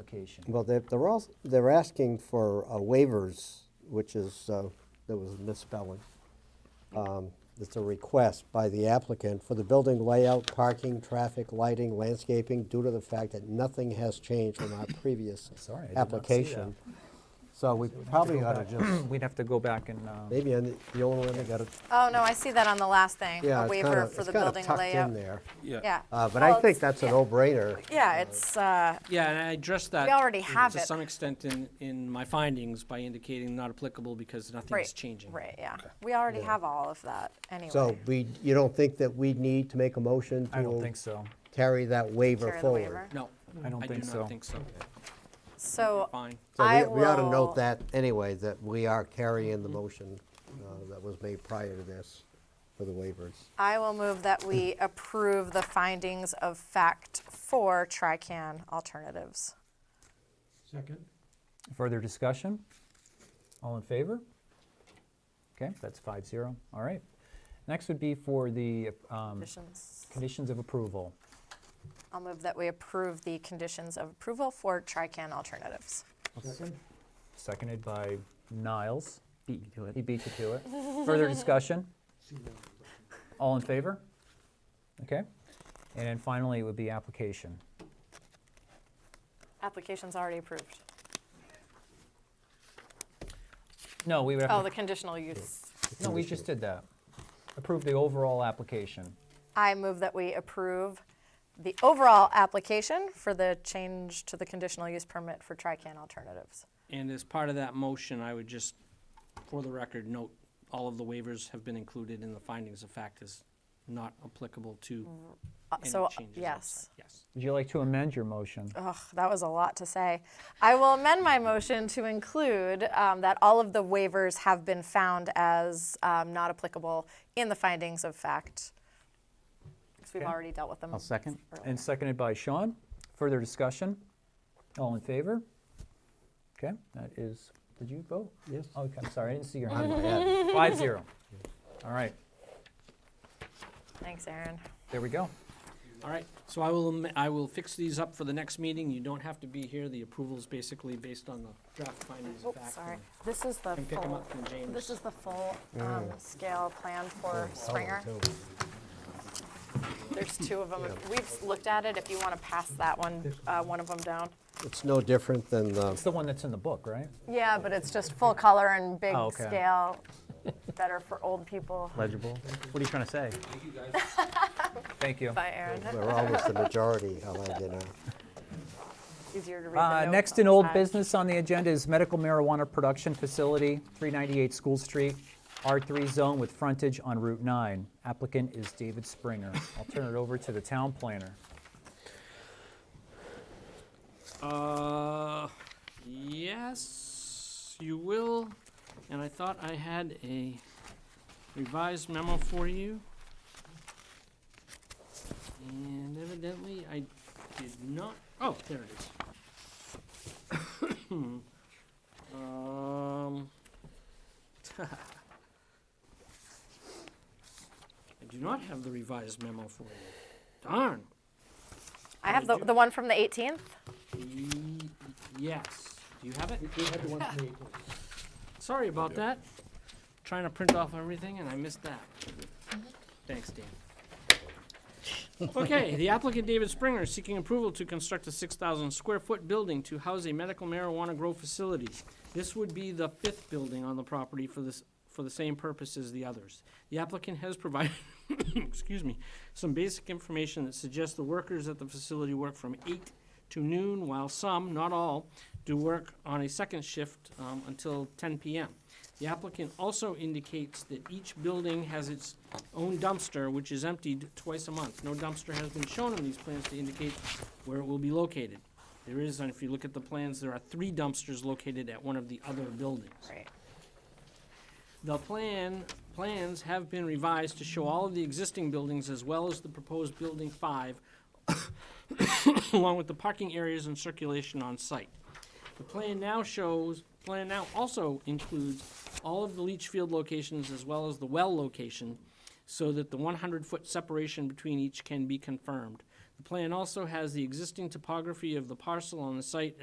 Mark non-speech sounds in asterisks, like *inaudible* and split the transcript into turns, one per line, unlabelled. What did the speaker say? application.
Well, they're, they're all, they're asking for uh, waivers, which is, uh, there was misspelling. Um, It's a request by the applicant for the building layout, parking, traffic, lighting, landscaping, due to the fact that nothing has changed from our previous
*coughs* Sorry, I did not see
application. So we probably ought to just,
*clears throat* We'd have to go back and, uh,
maybe on the the only one that got it,
Oh, no, I see that on the last thing,
yeah,
a
it's
waiver
kinda,
for
it's
the
kinda
building
tucked in
layout.
there.
Yeah.
Uh, But
Well,
I
it's-
think that's a
yeah.
no-brainer.
Yeah, it's, uh,
Yeah, and I addressed that.
already
in-
have it.
To some extent in, in my findings by indicating not applicable because nothing's
right,
changing.
right, yeah. We already have all of that, anyway.
So we, you don't think that we need to make a motion to
I don't think so.
carry that waiver
Carry the
forward?
waiver.
No.
I don't think
I do
so.
not think so.
So
Fine.
So
I
we- we ought to
will-
note that anyway, that we are carrying the motion uh, that was made prior to this for the waivers.
I will move that
*clears throat*
we approve the findings of fact for Trican alternatives.
Second.
Further discussion? All in favor? Okay, that's five zero. All right. Next would be for the um,
Conditions.
conditions of approval.
I'll move that we approve the conditions of approval for Trican alternatives.
Seconded by Niles. Beat you to it. He beat you to it. Further discussion? All in favor? Okay. And then finally, it would be application.
Application's already approved.
No, we would
Oh,
have,
the
to-
conditional use.
no, we just did that. Approve the overall application.
I move that we approve the overall application for the change to the conditional use permit for Trican alternatives.
And as part of that motion, I would just, for the record, note, all of the waivers have been included in the findings of fact as not applicable to
Uh,
any
So,
changes.
yes.
outside. Yes.
Would you like to amend your motion?
Ugh, that was a lot to say. I will amend my motion to include um, that all of the waivers have been found as um, not applicable in the findings of fact. Because we've already dealt with them.
second.
And seconded by Sean. Further discussion? All in favor? Okay, that is, did you vote?
Yes.
Okay, I'm sorry, I didn't see your hand. Five zero. All right,
Thanks, Aaron.
there we go.
All right, so I will, am- I will fix these up for the next meeting. You don't have to be here. The approval's basically based on the draft findings
Oh,
of fact.
sorry.
and
This is the
Can pick 'em
full,
up from James.
this is the full um,
Mm.
scale plan for Springer. There's two of them. We've looked at it. If you want to pass that one, uh, one of them down.
It's no different than
It's
the,
the one that's in the book, right?
Yeah, but it's just full color and big
Oh, okay. *laughs*
scale. Better for old people.
Legible. What are you trying to say?
Thank you.
Bye, Aaron.
we're almost the majority, I'll you know.
Easier to read.
Uh,
the notes
Next
on
in
the
old
side.
business on the agenda is medical marijuana production facility, 398 School Street, R3 zone with frontage on Route 9. Applicant is David Springer. I'll turn it over to the town planner.
Uh, yes, you will. And I thought I had a revised memo for you. And evidently I did not, oh, there it is. *coughs* Um. *laughs* I do not have the revised memo for you. Darn.
I have the, the one from the 18th.
Ye- Yes. Do you have it?
We had the one from the 18th.
*laughs* Sorry about that. Trying to print off everything and I missed that. Thanks, Dan. Okay, the applicant David Springer is seeking approval to construct a six thousand square foot building to house a medical marijuana grow facility. This would be the fifth building on the property for this, for the same purpose as the others. The applicant has provided, *coughs* excuse me, some basic information that suggests the workers at the facility work from eight to noon, while some, not all, do work on a second shift um, until 10 p.m. The applicant also indicates that each building has its own dumpster, which is emptied twice a month. No dumpster has been shown on these plans to indicate where it will be located. There is, and if you look at the plans, there are three dumpsters located at one of the other buildings.
Right.
The plan, plans have been revised to show all of the existing buildings as well as the proposed building five, *coughs* along with the parking areas and circulation on site. The plan now shows, plan now also includes all of the leach field locations as well as the well location, so that the one hundred foot separation between each can be confirmed. The plan also has the existing topography of the parcel on the site